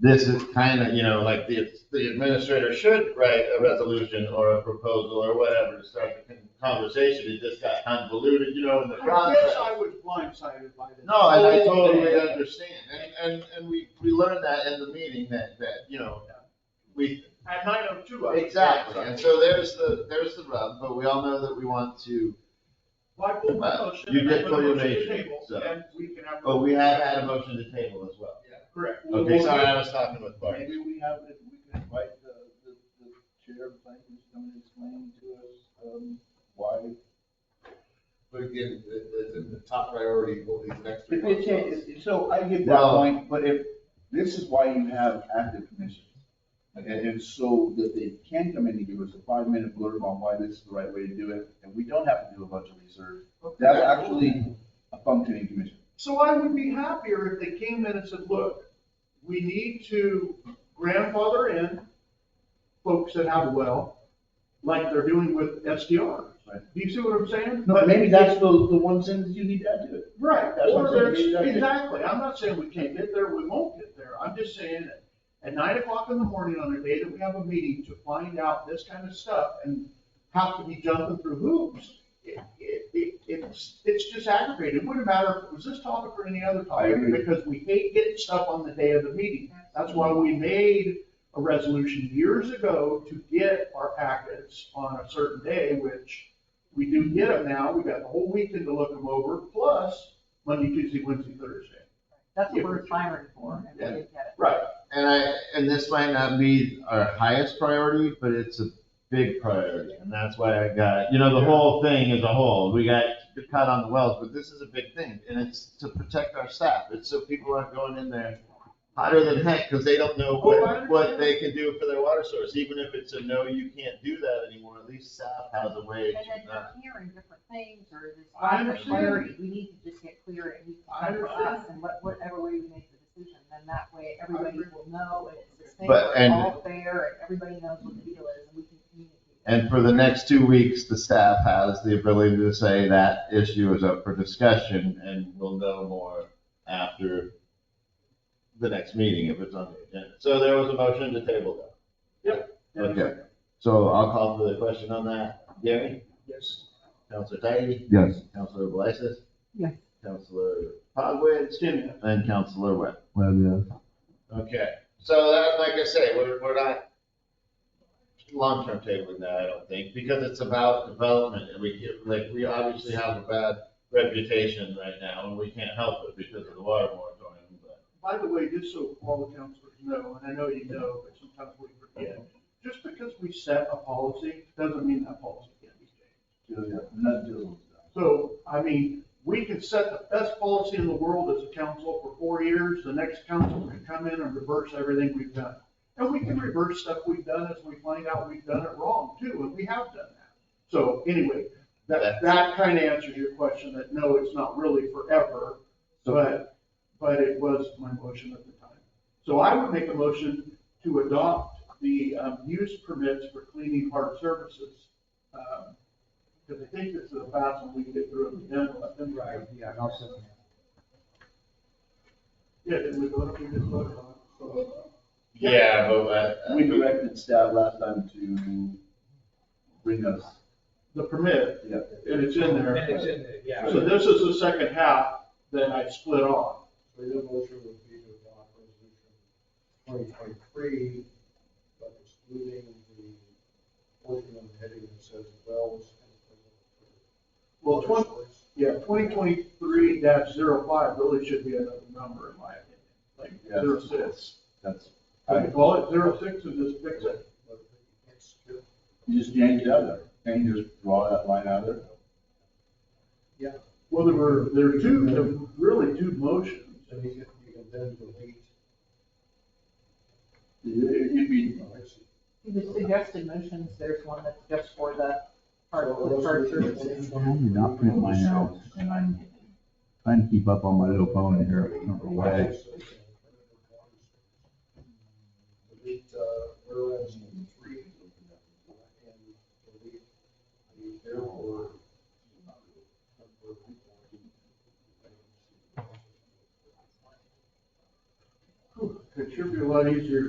this is kind of, you know, like the, the administrator should write a resolution or a proposal or whatever to start the con- conversation. It just got convoluted, you know, in the I guess process. I was blindsided by this. No, and I whole totally thing. understand. And, and, and we, we learned that in the meeting that, that, you know, we, At nine oh two. exactly. And so there's the, there's the rub, but we all know that we want to Well, I pulled my Well, motion. you and I did put pull a your motion to motion, table, so. And we can have. But we have had a motion to table as well. Yeah, Correct. We'll- Okay, we'll- sorry, I was talking with Bart. Maybe we have, if we can invite the, the, the chair of planning, to come and explain to us, um, why. But again, the, the, the top priority will be the next three If it months. changes, so I get that Well- point, but if, this is why you have active commissions. And, and so that they can come in and give us a five-minute blurb on why this is the right way to do it, and we don't have to do a bunch of research. That's actually a functioning commission. So I would be happier if they came in and said, look, we need to grandfather in folks that have a well, like they're doing with SDRs. Right. Do you see what I'm saying? But maybe that's the, the one sentence you need to add to it. Right, That's what or I'm saying, there's, maybe that's it. exactly, I'm not saying we can't get there, we won't get there, I'm just saying that at nine o'clock in the morning on a day that we have a meeting to find out this kind of stuff and have to be jumping through hoops, it, it, it- it's, it's just aggravating, it wouldn't matter if it was this topic or any other I topic, agree. because we hate getting stuff on the day of the meeting. That's why we made a resolution years ago to get our packets on a certain day, which we do get them now, we got the whole weekend to look them over, plus Monday, Tuesday, Wednesday, Thursday. That's what we're clamoring for, and we didn't get it. Right. And I, and this might not be our highest priority, but it's a big priority. And that's why I got, you know, the whole thing as a whole, we got cut on the wells, but this is a big thing. And it's to protect our staff. It's so people aren't going in there hotter than heck because they don't know Oh, I what, understand. what they can do for their water source. Even if it's a no, you can't do that anymore, at least staff has a way And then to not. you're hearing different things, or this I lack of understand. clarity, we need to just get clear, and we I can come to understand. us, and what, whatever way we make the decision, then that way, everybody agree. will know, and it's the same, But- we're and- all fair, and everybody knows what the deal is, and we can communicate. And for the next two weeks, the staff has the ability to say that issue is up for discussion and we'll know more after the next meeting if it's on the agenda. So there was a motion to table that. Okay. So I'll call for the question on that. Gary? Yes. Counselor Tidy? Yes. Counselor Belisis? Yes. Counselor Pogwizd? And Counselor Webb. Well, yeah. Okay, so that, like I say, we're, we're not long-term tabling that, I don't think, because it's about development, and we get, like, we obviously have a bad reputation right now, and we can't help it because of the water moratorium, but. By the way, just so all the counselors know, and I know you know, but sometimes we forget, just because we set a policy, doesn't mean that policy can't be changed. not doing that. So, I mean, we could set the best policy in the world as a council for four years, the next council can come in and reverse everything we've done. And we can reverse stuff we've done as we find out we've done it wrong too, and we have done that. So anyway, that, that kind of answers your question, that no, it's not really forever, but, but it was my motion at the time. So I would make a motion to adopt the um, use permits for cleaning hard surfaces. um, Because I think this is the fast one we can get through it, then let them drive. Yeah, and also. Yeah, did we vote, we just voted on it. So, Yeah, but, uh, We directed staff last time to bring us, The permit, yeah, and it's in there. And it's in there, yeah. So this is the second half that I split off. So your motion would be to adopt resolution twenty twenty-three, but excluding the portion of the heading that says wells and. Well, twenty, yeah, twenty twenty-three dash zero five really should be another number in my opinion, like Yeah. zero six. that's, I could call it zero six and just fix it. you just change it out of there, and you just draw that line out of there. Well, there were, there were two, there were really two motions. So you can, you can then delete. It- It'd be, Oh, I see. The suggested motions, there's one that's just for the hard, So uh, hard resolution surfaces. 2023 I did not print mine out, and I'm trying to keep up on my little phone here, I don't know why. Delete, uh, whereas in three, and delete the therefore. It should be a lot easier